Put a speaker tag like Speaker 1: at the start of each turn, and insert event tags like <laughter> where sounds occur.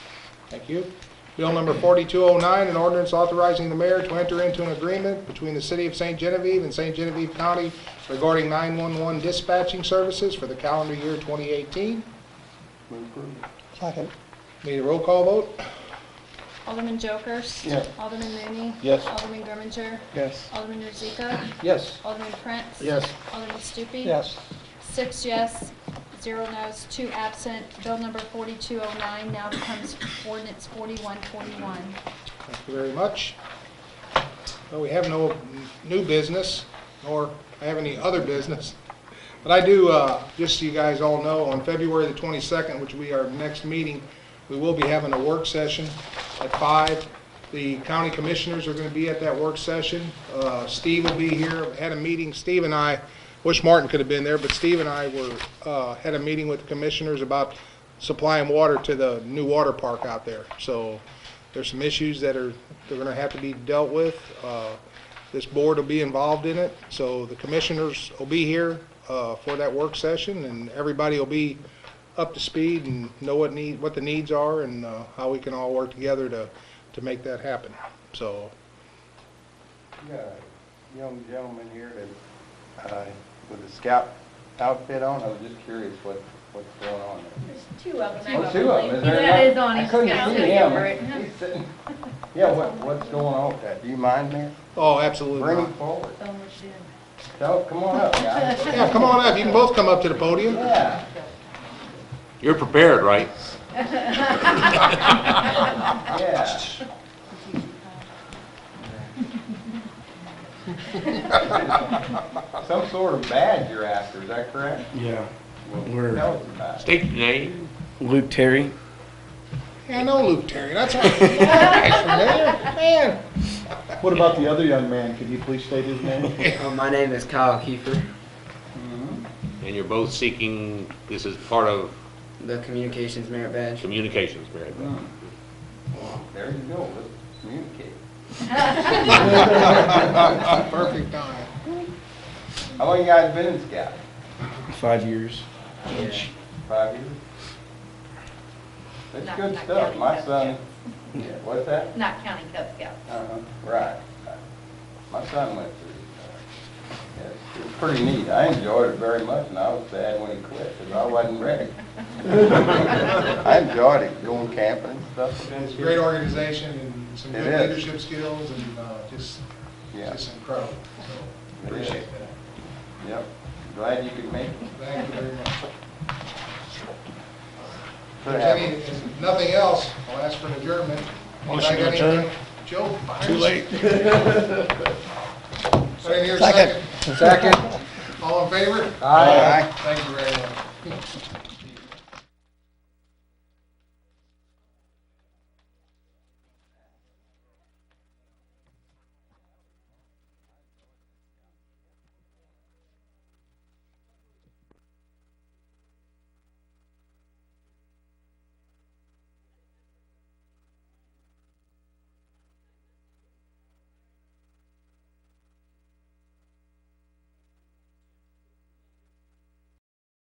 Speaker 1: Thank you. Bill number 4209, an ordinance authorizing the mayor to enter into an agreement between the City of St. Genevieve and St. Genevieve County regarding 911 dispatching services for the calendar year 2018.
Speaker 2: Move approval.
Speaker 3: Second.
Speaker 1: Need a roll call vote?
Speaker 4: Alderman Jokers.
Speaker 2: Yeah.
Speaker 4: Alderman Mooney.
Speaker 2: Yes.
Speaker 4: Alderman Grimminger.
Speaker 3: Yes.
Speaker 4: Alderman Rozika.
Speaker 2: Yes.
Speaker 4: Alderman Prince.
Speaker 2: Yes.
Speaker 4: Alderman Stupi.
Speaker 3: Yes.
Speaker 4: Six yes, zero no's, two absent. Bill number 4209 now becomes ordinance 4141.
Speaker 1: Thank you very much. Well, we have no new business, nor I have any other business. But I do, uh, just so you guys all know, on February the 22nd, which will be our next meeting, we will be having a work session at five. The county commissioners are going to be at that work session. Uh, Steve will be here, had a meeting, Steve and I, wish Martin could have been there, but Steve and I were, uh, had a meeting with the commissioners about supplying water to the new water park out there. So there's some issues that are, they're going to have to be dealt with. Uh, This board will be involved in it, so the commissioners will be here uh, for that work session, and everybody will be up to speed and know what need, what the needs are, and uh, how we can all work together to, to make that happen. So,
Speaker 2: You got a young gentleman here that, uh, with a scout outfit on, I was just curious what, what's going on there.
Speaker 5: Two of them.
Speaker 2: Oh, two of them, is there?
Speaker 5: That
Speaker 2: enough?
Speaker 5: is on
Speaker 2: I
Speaker 5: his
Speaker 2: couldn't
Speaker 5: scout.
Speaker 2: see
Speaker 5: Yeah.
Speaker 2: him. <laughs> He's sitting- Yeah, what, what's going on with that? Do you mind, Mayor?
Speaker 1: oh, absolutely.
Speaker 2: Bring
Speaker 1: not.
Speaker 2: him forward.
Speaker 5: So much in.
Speaker 2: So, come on up, guys.
Speaker 1: Yeah, come on up, you can both come up to the podium.
Speaker 2: Yeah.
Speaker 6: You're prepared, right?
Speaker 2: Yeah.
Speaker 5: <laughs>
Speaker 2: Some sort of badge you're after, is that correct?
Speaker 7: Yeah,
Speaker 2: Well,
Speaker 7: We're-
Speaker 2: Tell us about it.
Speaker 6: State your name.
Speaker 7: Luke Terry.
Speaker 1: Yeah, I know Luke Terry, that's all.
Speaker 2: <laughs>
Speaker 1: Man,
Speaker 8: What about the other young man? Could you please state his name?
Speaker 9: My name is Kyle Kiefer,
Speaker 6: And you're both seeking, this is part of
Speaker 9: the Communications Merit Badge.
Speaker 6: communications, Mary Beth.
Speaker 2: <laughs> There you go, let's communicate.
Speaker 1: Perfect time.
Speaker 2: How long you guys been in Scout?
Speaker 7: Five years.
Speaker 9: Yeah.
Speaker 2: Five years?
Speaker 5: Not-
Speaker 2: That's good
Speaker 5: not
Speaker 2: stuff,
Speaker 5: counting
Speaker 2: my
Speaker 5: Cub
Speaker 2: son, <laughs> yeah, what's that?
Speaker 5: Not counting Cub Scouts.
Speaker 2: Uh-huh, right, right. my son went through. uh, yeah, It was pretty neat, I enjoyed it very much, and I was sad when he quit, because I wasn't
Speaker 5: <laughs>
Speaker 2: ready. <laughs> I enjoyed it, going camping and stuff.
Speaker 1: It's a great organization and some
Speaker 2: It
Speaker 1: good
Speaker 2: is.
Speaker 1: leadership skills and uh, just,
Speaker 2: Yeah.
Speaker 1: just incredible. So
Speaker 2: It is.
Speaker 1: Appreciate that.
Speaker 2: Yep, glad you could make it.
Speaker 1: Thank you very much. If
Speaker 2: Could
Speaker 1: there's
Speaker 2: have.
Speaker 1: any, if nothing else, I'll ask for an adjournment.
Speaker 7: Motion to
Speaker 1: Anybody got anything?
Speaker 7: adjourn.
Speaker 1: Joe? <laughs>
Speaker 7: Too late.
Speaker 1: Put in here a
Speaker 3: Second.
Speaker 1: second.
Speaker 2: Second.
Speaker 1: All in favor?
Speaker 2: Aye.
Speaker 1: Thank you very much.